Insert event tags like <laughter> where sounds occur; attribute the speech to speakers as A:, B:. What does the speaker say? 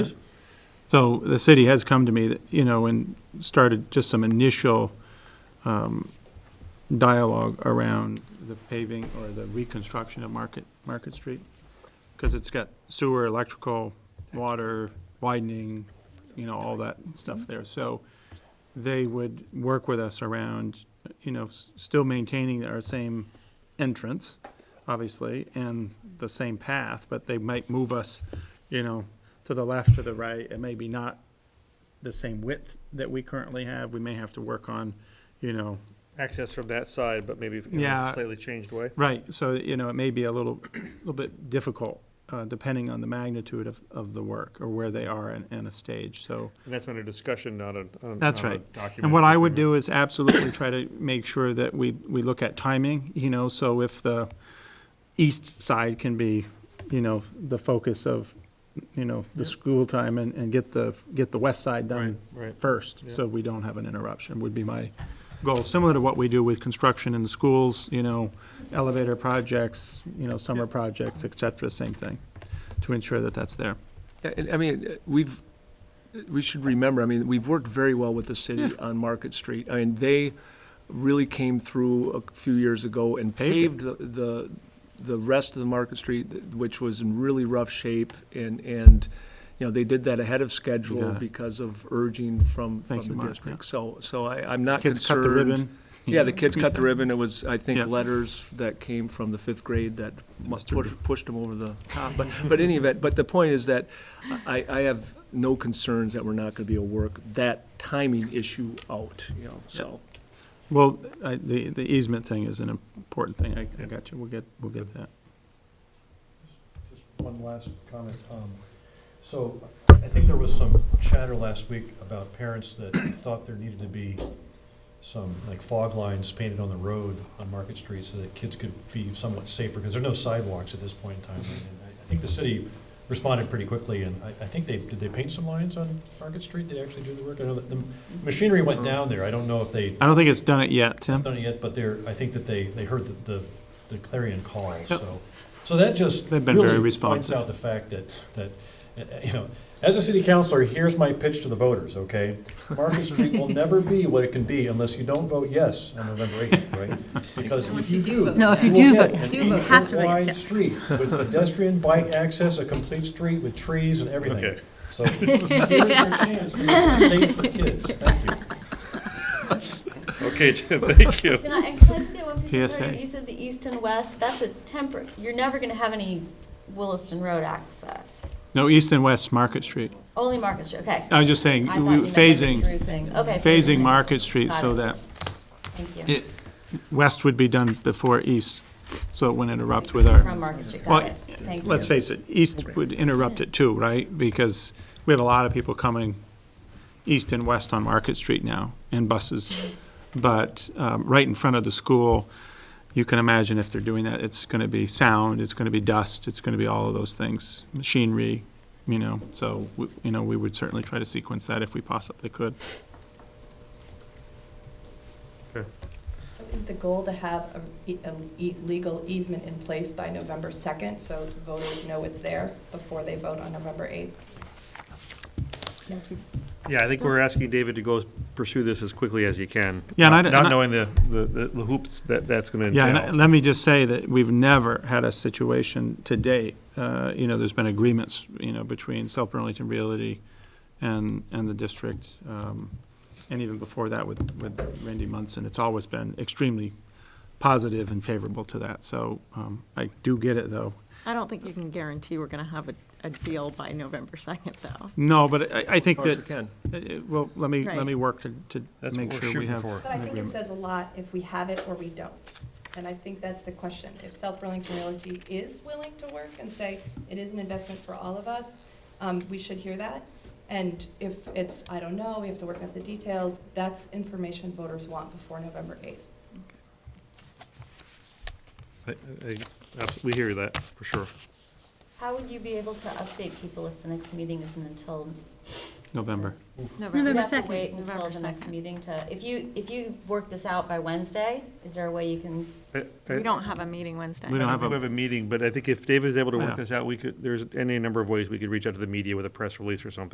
A: So the city has come to me, that you know, and started just some initial um, dialogue around the paving or the reconstruction of Market, Market Street. Because it's got sewer, electrical, water, widening, you know, all that stuff there. So they would work with us around, you know, s- still maintaining our same entrance, obviously, and the same path, but they might move us, you know, to the left or the right, and maybe not the same width that we currently have. We may have to work on, you know,
B: Access from that side, but maybe in
A: Yeah.
B: a slightly changed way.
A: right, so, you know, it may be a little, <clears throat> little bit difficult, uh, depending on the magnitude of, of the work or where they are in, in a stage, so.
B: And that's under discussion, not a, not a-
A: That's
B: not a
A: right.
B: uh, document.
A: And what I would do is absolutely try to make sure that we, we look at timing, you know, so if the east side can be, you know, the focus of, you know, the school time and, and get the, get the west side
B: Right,
A: done
B: right.
A: first, so we don't have an interruption, would be my goal. Similar to what we do with construction in the schools, you know, elevator projects, you know, summer projects, et cetera, same thing, to ensure that that's there.
C: Yeah, and I mean, we've, we should remember, I mean, we've worked very well with the city on Market Street. I mean, they really came through a few years ago and paved
A: Paved
C: the, the, the rest of the Market Street, which was in really rough shape. And, and, you know, they did that ahead of schedule
A: got it.
C: because of urging from,
A: Thank
C: from
A: you,
C: the
A: Mark,
C: district. So, so I, I'm not concerned.
A: Kids cut the ribbon.
C: Yeah, the kids cut the ribbon. It was, I
A: Yeah.
C: think, letters that came from the fifth grade that must push- pushed them over the top. But, but any event, but the point is that I, I have no concerns that we're not going to be able to work that timing issue out, you know, so.
A: Well, I, the, the easement thing is an important thing, I, I got you, we'll get, we'll get that.
D: Just one last comment. Um, So I think there was some chatter last week about parents that thought there needed to be some, like fog lines painted on the road on Market Street so that kids could be somewhat safer, because there are no sidewalks at this point in time. And I- I think the city responded pretty quickly, and I, I think they, did they paint some lines on Market Street? Did they actually do the work? I know that the machinery went down there. I don't know if they
A: I don't think it's done it yet, Tim.
D: done it yet, but they're, I think that they, they heard the- the, the clarion call, so. So that just
A: They've been very
D: really
A: responsive.
D: Points out the fact that, that, uh, you know, as a city councilor, here's my pitch to the voters, okay? Market Street will never be what it can be unless you don't vote yes on November eighth, right? Because if you do.
E: No, if you
D: will
E: do
D: get
E: vote yes.
D: an
E: You have to vote
D: equal-wide
E: yes.
D: street with pedestrian, bike access, a complete street with trees and everything.
B: Okay.
D: So here's your chance to make it safe for kids. Thank you.
B: Okay, <laughs> Tim, thank you.
F: Can I, and can I just get one piece of
A: PSA.
F: clarity? You said the east and west, that's a temper, you're never gonna have any Williston Road access.
A: No, east and west Market Street.
F: Only Market Street, okay.
A: I was just saying,
F: I thought you meant like what you
A: Uh, phasing,
F: were saying. Okay.
A: phasing Market Street so that
F: Got it. Thank you.
A: it, west would be done before east, so it wouldn't interrupt with
F: From
A: our,
F: Market Street,
A: Well,
F: got it. Thank you.
A: let's face it, east would interrupt it too, right? Because we have a lot of people coming east and west on Market Street now, and buses. But, um, right in front of the school, you can imagine if they're doing that, it's gonna be sound, it's gonna be dust, it's gonna be all of those things, machinery, you know, so, we- you know, we would certainly try to sequence that if we possibly could.
G: Is the goal to have a e- a e- legal easement in place by November 2nd, so voters know it's there before they vote on November 8th?
B: Yeah, I think we're asking David to go pursue this as quickly as he can.
A: Yeah, and I
B: not-
A: don't-
B: Not
A: and I-
B: knowing the, the, the the hoops that, that's gonna
A: Yeah, and I-
B: entail.
A: let me just say that we've never had a situation to date, uh, you know, there's been agreements, you know, between South Burlington Realty and, and the district, um, and even before that with, with Randy Munson, it's always been extremely positive and favorable to that, so, um, I do get it, though.
H: I don't think you can guarantee we're going to have a, a deal by November 2nd, though.
A: No, but I, I think
C: Of course
A: that,
C: we can.
A: uh, uh, well, let me, let
H: Right.
A: me work to, to
B: That's
A: make
B: what we're
A: sure we
B: shooting
A: have.
B: for.
G: But I think it says a lot if we have it or we don't. And I think that's the question. If South Burlington Realty is willing to work and say, it is an investment for all of us, um, we should hear that. And if it's, I don't know, we have to work out the details, that's information voters want before November 8th.
B: I- I- abs- We hear that, for sure.
F: How would you be able to update people if the next meeting isn't until
A: November.
H: November.
F: We'd have to
E: 2nd,
F: wait until
E: November
F: the next
E: 2nd.
F: meeting to, if you, if you work this out by Wednesday, is there a way you can
B: I- I-
H: We don't have a meeting Wednesday.
A: Uh, We
B: I
A: don't
B: don't
A: have
B: think we
A: a-
B: have a meeting, but I think if David is able to
A: Yeah.
B: work this out, we could, there's any number of ways we could reach out to the media with a press release or something.